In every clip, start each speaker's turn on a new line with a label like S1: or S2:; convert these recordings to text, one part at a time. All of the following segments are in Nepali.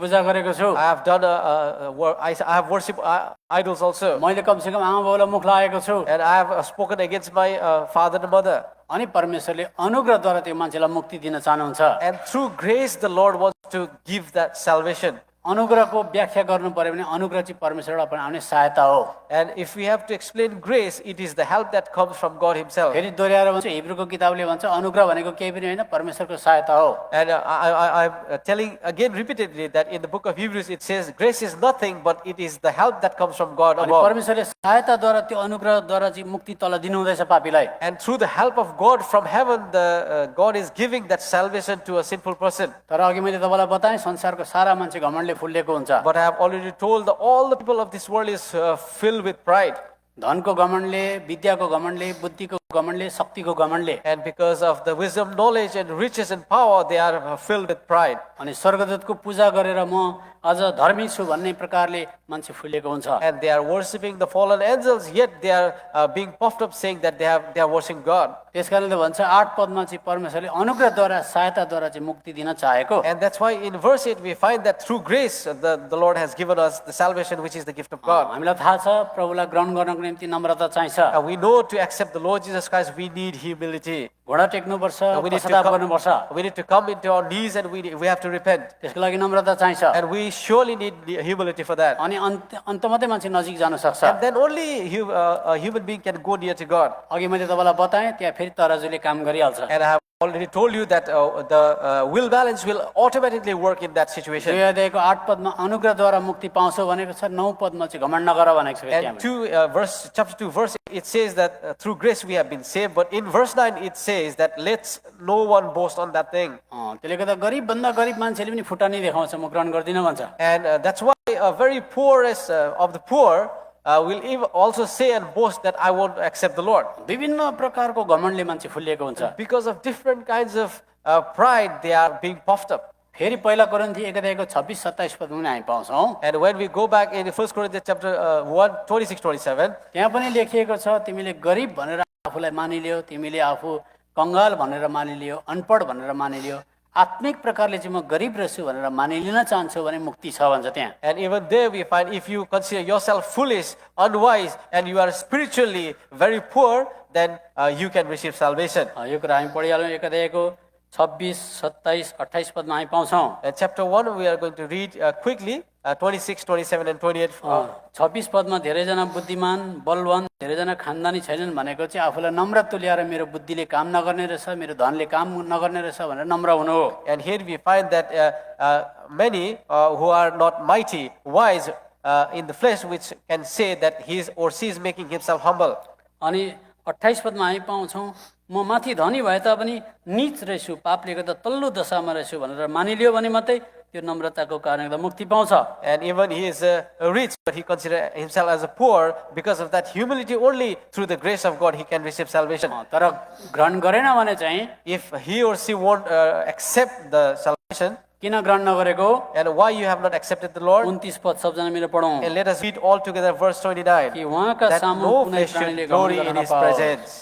S1: पूजा गरेको छु
S2: I have done, uh, uh, wor- I I have worshipped uh, idols also.
S1: मैले कमसेकम आमा बाउलाई मुख लागेको छु
S2: And I have uh, spoken against my uh, father and mother.
S1: अनि परमेश्वरले अनुग्रहद्वारा त्यो मान्छेलाई मुक्ति दिन चाहनुहुन्छ
S2: And through grace, the Lord wants to give that salvation.
S1: अनुग्रहको व्याख्या गर्नु पर्यो भने अनुग्रह चाहिँ परमेश्वरबाट पनि आउने सहायता हो
S2: And if we have to explain grace, it is the help that comes from God Himself.
S1: फेरि दोहोऱ्याएर भन्छ हिब्रूको किताबले भन्छ अनुग्रह भनेको केही पनि होइन परमेश्वरको सहायता हो
S2: And uh, I, I, I'm uh, telling again repeatedly that in the book of Hebrews it says, grace is nothing, but it is the help that comes from God
S1: अनि
S2: above.
S1: परमेश्वरले सहायताद्वारा त्यो अनुग्रहद्वारा चाहिँ मुक्ति तल दिनुहुँदैछ पापीलाई
S2: And through the help of God from heaven, the uh, God is giving that salvation to a sinful person.
S1: तर अघि मैले तपाईँलाई बताएँ संसारको सारा मान्छे घमण्डले फुलिएको हुन्छ
S2: But I have already told that all the people of this world is uh, filled with pride.
S1: धनको घमण्डले विद्याको घमण्डले बुद्धिको घमण्डले शक्तिको घमण्डले
S2: And because of the wisdom, knowledge, and riches and power, they are uh, filled with pride.
S1: अनि स्वर्गदूतको पूजा गरेर म अझ धर्मी छु भन्ने प्रकारले मान्छे फुलिएको हुन्छ
S2: And they are worshipping the fallen angels, yet they are uh, being puffed up saying that they, have, they are worshiping God.
S1: त्यस कारणले भन्छ आठ पदमा चाहिँ परमेश्वरले अनुग्रहद्वारा सहायताद्वारा चाहिँ मुक्ति दिन चाहेको
S2: And that's why in verse 8 we find that through grace uh, the, the Lord has given us the salvation which is the gift of God.
S1: हामीलाई थाहा छ प्रभुलाई ग्रहण गर्नको निम्ति नम्रता चाहिन्छ
S2: And we know to accept the Lord Jesus Christ we need humility.
S1: घोडा टेक्नुपर्छ
S2: And we need to
S1: पश्चाताप गर्नुपर्छ
S2: come, we need to come into our knees and we, we have to repent.
S1: त्यसको लागि नम्रता चाहिन्छ
S2: And we surely need humility for that.
S1: अनि अन्त अन्त मात्रै मान्छे नजिक जान सक्छ
S2: And then only hu- uh, a human being can go near to God.
S1: अघि मैले तपाईँलाई बताएँ त्यहाँ फेरि तराजुले काम गरिहाल्छ
S2: And I have already told you that uh, the uh, will balance will automatically work in that situation.
S1: दुई अध्यायको आठ पदमा अनुग्रहद्वारा मुक्ति पाउँछौ भनेको छ नौ पदमा चाहिँ घमण्ड नगर भनेको छ फेरि
S2: And
S1: त्यहाँबाट।
S2: two, uh, verse, chapter 2, verse, it says that uh, through grace we have been saved. But in verse 9, it says that let's no one boast on that thing.
S1: अँ, त्यसले गर्दा गरिबभन्दा गरिब मान्छेले पनि फुटानी देखाउँछ म ग्रहण गर्दिनँ भन्छ
S2: And uh, that's why a very poorest uh, of the poor uh, will ev- also say and boast that I won't accept the Lord.
S1: विभिन्न प्रकारको घमण्डले मान्छे फुलिएको हुन्छ
S2: Because of different kinds of uh, pride, they are being puffed up.
S1: फेरि पहिला कोरिन्थी एक अध्यायको छब्बिस सत्ताइस पदमा पनि हामी पाउँछौँ
S2: And when we go back in 1 Corinthians chapter uh, 1, 26, 27,
S1: त्यहाँ पनि लेखिएको छ तिमीले गरिब भनेर आफूलाई मानिलियो तिमीले आफू कङ्गाल भनेर मानिलियो अनपढ भनेर मानिलियो आत्मिक प्रकारले चाहिँ म गरिब रहेछु भनेर मानिलिन चाहन्छु भने मुक्ति छ भन्छ त्यहाँ
S2: and even there we find if you consider yourself foolish, unwise, and you are spiritually very poor, then uh, you can receive salvation.
S1: अ, यो कुरा हामी पढिहाल्यौँ एक अध्यायको छब्बिस सत्ताइस अठाइस पदमा हामी पाउँछौँ
S2: And chapter 1, we are going to read uh, quickly uh, 26, 27, and Uh, 28.
S1: अ, छब्बिस पदमा धेरैजना बुद्धिमान बलवान धेरैजना खानदानी छैनन् भनेको चाहिँ आफूलाई नम्र तुल्याएर मेरो बुद्धिले काम नगर्ने रहेछ मेरो धनले काम नगर्ने रहेछ भनेर नम्र हुनु हो
S2: And here we find that uh, uh, many uh, who are not mighty, wise uh, in the flesh, which can say that he is or she is making himself humble.
S1: अनि अठाइस पदमा हामी पाउँछौँ म माथि धनी भए तापनि निच रहेछु पापले गर्दा तल्लो दशामा रहेछु भनेर मानिलियो भने मात्रै त्यो नम्रताको कारणले गर्दा मुक्ति पाउँछ
S2: And even he is uh, rich, but he considers himself as a poor. Because of that humility, only through the grace of God, he can receive salvation.
S1: अ, तर ग्रहण गरेन भने चाहिँ
S2: If he or she won't uh, accept the salvation,
S1: किन ग्रहण नगरेको
S2: and why you have not accepted the Lord,
S1: उन्तिस पद सबजना मिलेर पढौँ
S2: and let us read all together verse 29.
S1: कि उहाँका
S2: that
S1: सामु
S2: no
S1: कुनै
S2: flesh
S1: प्राणीले
S2: should
S1: घमण्ड
S2: glory in
S1: गर्न
S2: his
S1: नपाओस्।
S2: presence.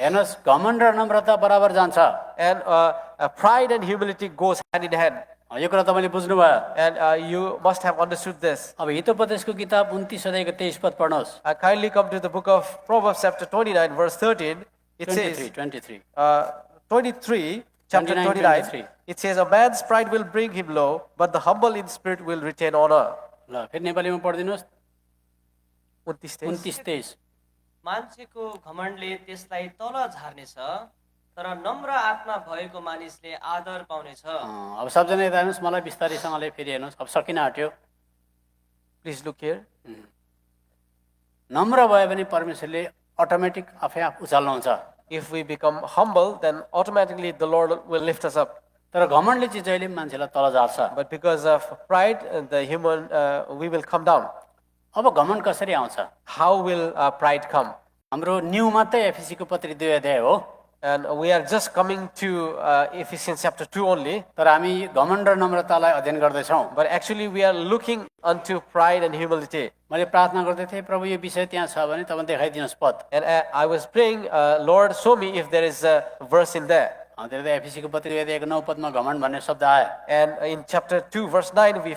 S1: हेर्नुहोस् घमण्ड र नम्रता बराबर जान्छ
S2: And uh, uh, pride and humility goes hand in hand.
S1: अ, यो कुरा तपाईँले बुझ्नुभयो
S2: And uh, you must have understood this.
S1: अब हितोपदेशको किताब उन्तिस अध्यायको तेइस पद पढ्नुहोस्
S2: I kindly come to the book of Proverbs chapter 29 verse 13. It
S1: twenty three
S2: says,
S1: twenty three
S2: uh, 23, chapter
S1: 29,
S2: 29,
S1: 23.
S2: it says, a man's pride will bring him low, but the humble in spirit will retain honor.
S1: ल फेरि नेपालीमा पढिदिनुहोस्
S2: 29 says,
S1: उन्तिस तेइस
S3: मान्छेको घमण्डले त्यसलाई तल झार्नेछ तर नम्र आत्मा भएको मानिसले आदर पाउनेछ
S1: अँ, अब सबजना यता हेर्नुहोस् मलाई बिस्तारैसँगले फेरि हेर्नुहोस् अब सकिन आँट्यो
S2: Please look here.
S1: नम्र भयो भने परमेश्वरले अटोमेटिक आफै आफ उचाल्नुहुन्छ
S2: If we become humble, then automatically the Lord will lift us up.
S1: तर घमण्डले चाहिँ जहिले पनि मान्छेलाई तल झार्छ
S2: But because of pride, uh, the human, uh, we will come down.
S1: अब घमण्ड कसरी आउँछ
S2: How will uh, pride come?
S1: हाम्रो न्यु मात्रै एफिसीको पत्री दुई अध्याय हो
S2: And we are just coming to uh, Ephesians chapter 2 only,
S1: तर हामी घमण्ड र नम्रतालाई अध्ययन गर्दैछौँ
S2: but actually we are looking unto pride and humility.
S1: मैले प्रार्थना गर्दै थिएँ प्रभु यो विषय त्यहाँ छ भने तपाईँ देखाइदिनुहोस् पद
S2: And uh, I was praying, uh, Lord, show me if there is a verse in there.
S1: अँ, त्यही त एफिसीको पत्रिका एक नौ पदमा घमण्ड भन्ने शब्द आयो
S2: And in chapter 2, verse 9, we